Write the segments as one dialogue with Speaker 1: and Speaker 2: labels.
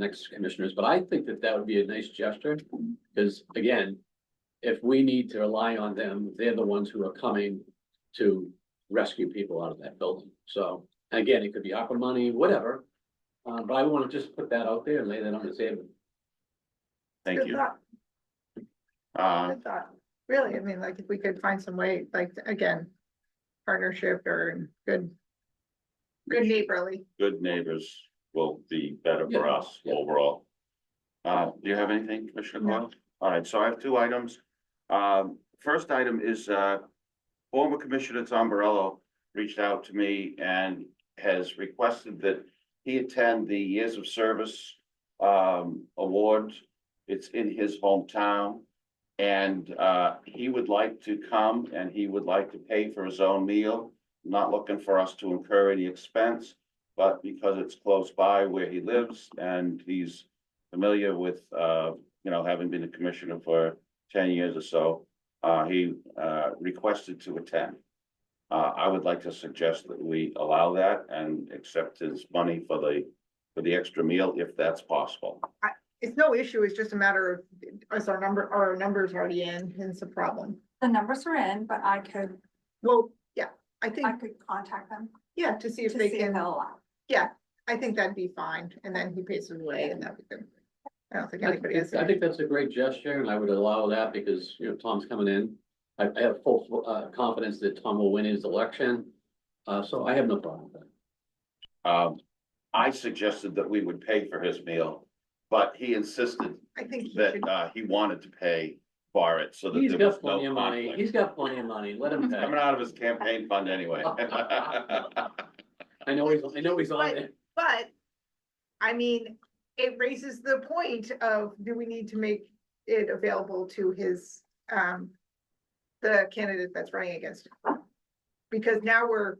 Speaker 1: next commissioners, but I think that that would be a nice gesture, because again, if we need to rely on them, they're the ones who are coming to rescue people out of that building. So again, it could be ARPA money, whatever. Uh, but I want to just put that out there and lay that on the table.
Speaker 2: Thank
Speaker 3: Good
Speaker 2: you.
Speaker 3: thought,
Speaker 2: Uh,
Speaker 3: Good thought. Really, I mean, like, if we could find some way, like, again, partnership or good, good neighborly.
Speaker 2: good neighbors will be better for
Speaker 1: Yeah,
Speaker 2: us
Speaker 1: yeah.
Speaker 2: overall. Uh, do you have anything, Commissioner
Speaker 3: No.
Speaker 2: Coyle? All right, so I have two items. Um, first item is, uh, former Commissioner Tombarello reached out to me and has requested that he attend the Years of Service, um, award. It's in his hometown. And, uh, he would like to come and he would like to pay for his own meal. Not looking for us to incur any expense but because it's close by where he lives and he's familiar with, uh, you know, having been a commissioner for ten years or so, uh, he, uh, requested to attend. Uh, I would like to suggest that we allow that and accept his money for the, for the extra meal if that's possible.
Speaker 3: It's no issue, it's just a matter of, is our number, are our numbers already in, hence the problem.
Speaker 4: The numbers are in, but I could,
Speaker 3: Well, yeah, I think,
Speaker 4: I could contact them
Speaker 3: yeah, to see
Speaker 4: to
Speaker 3: if
Speaker 4: see
Speaker 3: they
Speaker 4: if they'll
Speaker 3: can,
Speaker 4: allow.
Speaker 3: I think that'd be fine, and then he pays his way and that'd be good. I don't think
Speaker 1: I
Speaker 3: anybody has.
Speaker 1: think I think that's a great gesture and I would allow that because, you know, Tom's coming in. I, I have full, uh, confidence that Tom will win his election. Uh, so I have no problem with that.
Speaker 2: Um, I suggested that we would pay for his meal, but he insisted
Speaker 3: I think he
Speaker 2: that,
Speaker 3: should,
Speaker 2: uh, he wanted to pay for it so that
Speaker 1: He's
Speaker 2: there was
Speaker 1: got plenty
Speaker 2: no
Speaker 1: of money.
Speaker 2: conflict.
Speaker 1: He's got plenty of money. Let him pay.
Speaker 2: Coming out of his campaign fund anyway.
Speaker 1: I know he's, I know he's on
Speaker 3: But-
Speaker 1: it.
Speaker 3: but, I mean, it raises the point of, do we need to make it available to his, um, the candidate that's running against? him? Because now we're,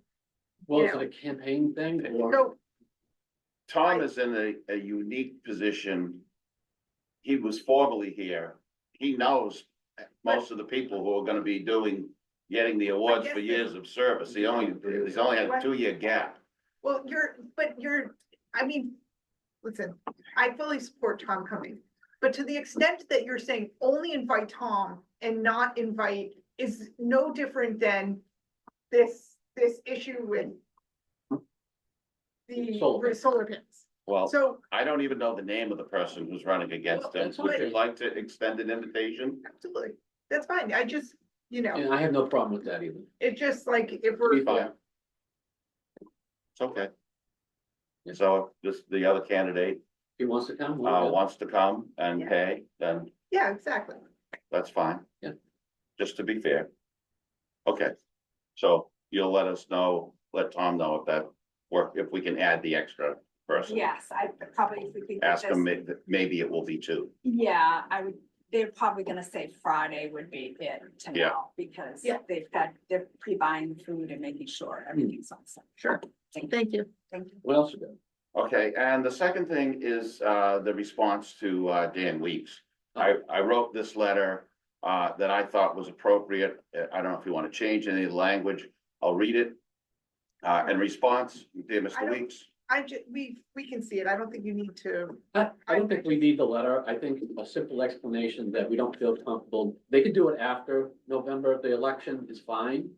Speaker 1: Well,
Speaker 3: you
Speaker 1: is
Speaker 3: know.
Speaker 1: it a campaign thing or?
Speaker 3: no,
Speaker 2: Tom is in a, a unique position. He was formerly here. He knows most of the people who are gonna be doing, getting the awards for years of service. He only, he's only had a two-year gap.
Speaker 3: Well, you're, but you're, I mean, listen, I fully support Tom coming, but to the extent that you're saying only invite Tom and not invite is no different than this, this issue with the
Speaker 1: Solar.
Speaker 3: with solar pins.
Speaker 2: Well,
Speaker 3: So,
Speaker 2: I don't even know the name of the person who's running against
Speaker 1: Well,
Speaker 2: him.
Speaker 1: that's
Speaker 2: Would you
Speaker 1: okay.
Speaker 2: like to extend an invitation?
Speaker 3: absolutely, that's fine. I just, you know,
Speaker 1: And I have no problem with that either.
Speaker 3: it just like if
Speaker 2: Be
Speaker 3: we're,
Speaker 2: fine. It's okay. So if this, the other candidate,
Speaker 1: He wants to come. we'll
Speaker 2: uh,
Speaker 1: go.
Speaker 2: wants to come and
Speaker 3: Yeah.
Speaker 2: pay, then
Speaker 3: yeah, exactly.
Speaker 2: That's fine.
Speaker 1: Yeah.
Speaker 2: Just to be fair. Okay, so you'll let us know, let Tom know if that work, if we can add the extra person.
Speaker 4: Yes, I probably, if we could. get
Speaker 2: Ask him,
Speaker 4: this-
Speaker 2: may- maybe it will be two.
Speaker 4: Yeah, I would, they're probably gonna say Friday would be it to
Speaker 2: Yeah.
Speaker 4: know, because
Speaker 3: Yeah.
Speaker 4: they've got, they're pre-buying food and making sure everything's on site.
Speaker 3: Sure.
Speaker 4: Thank
Speaker 3: Thank you.
Speaker 4: thank you.
Speaker 1: What else you got?
Speaker 2: Okay, and the second thing is uh the response to uh Dan Weeks. I I wrote this letter uh that I thought was appropriate. Uh, I don't know if you want to change any of the language. I'll read it. Uh, in response, dear
Speaker 3: I
Speaker 2: Mr.
Speaker 3: don't-
Speaker 2: Weeks.
Speaker 3: I ju- we, we can see it. I don't think you need to,
Speaker 1: I, I don't think we need the letter. I think a simple explanation that we don't feel comfortable. They could do it after November. The election is fine.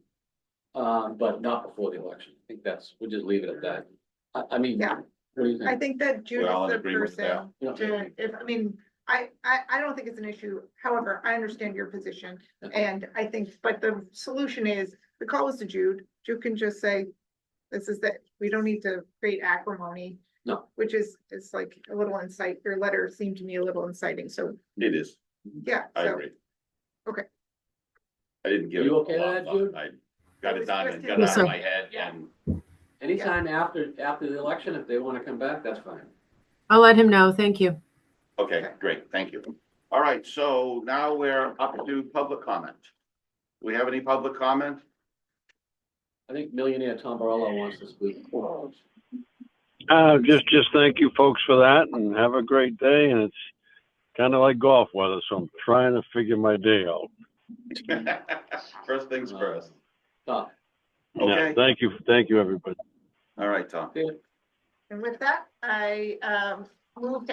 Speaker 1: Um, but not before the election. I think that's, we'll just leave it at that. I, I mean,
Speaker 3: Yeah.
Speaker 1: what do you
Speaker 3: I
Speaker 1: think?
Speaker 3: think that June
Speaker 2: all
Speaker 3: is
Speaker 2: in
Speaker 3: the
Speaker 2: agreement with that.
Speaker 3: person.
Speaker 1: You know,
Speaker 3: to, if, I mean, I, I, I don't think it's an issue. However, I understand your position.
Speaker 1: Okay.
Speaker 3: And I think, but the solution is, the call is to Jude. Jude can just say, this is that, we don't need to create acrimony.
Speaker 1: No.
Speaker 3: Which is, it's like a little insight, your letter seemed to me a little inciting, so,
Speaker 2: It is.
Speaker 3: yeah.
Speaker 2: I
Speaker 3: so
Speaker 2: agree.
Speaker 3: Okay.
Speaker 2: I didn't give.
Speaker 1: You
Speaker 2: it a
Speaker 1: okay with
Speaker 2: lot
Speaker 1: that,
Speaker 2: thought.
Speaker 1: Jude?
Speaker 2: I got
Speaker 3: It
Speaker 2: it
Speaker 3: was
Speaker 2: done and
Speaker 3: just
Speaker 2: got
Speaker 3: a-
Speaker 2: it out of my head and
Speaker 1: Anytime after, after the election, if they want to come back, that's fine.
Speaker 5: I'll let him know. Thank you.
Speaker 2: Okay, great, thank you. All right, so now we're up to public comment. Do we have any public comment?
Speaker 1: I think millionaire Tom Barolo wants to speak.
Speaker 6: Uh, just, just thank you folks for that and have a great day. And it's kind of like golf weather, so I'm trying to figure my day out.
Speaker 2: First things first.
Speaker 1: Tom,
Speaker 2: Okay.
Speaker 6: Yeah, Thank you, thank you, everybody.
Speaker 2: All right, Tom.
Speaker 3: And with that, I, um, move to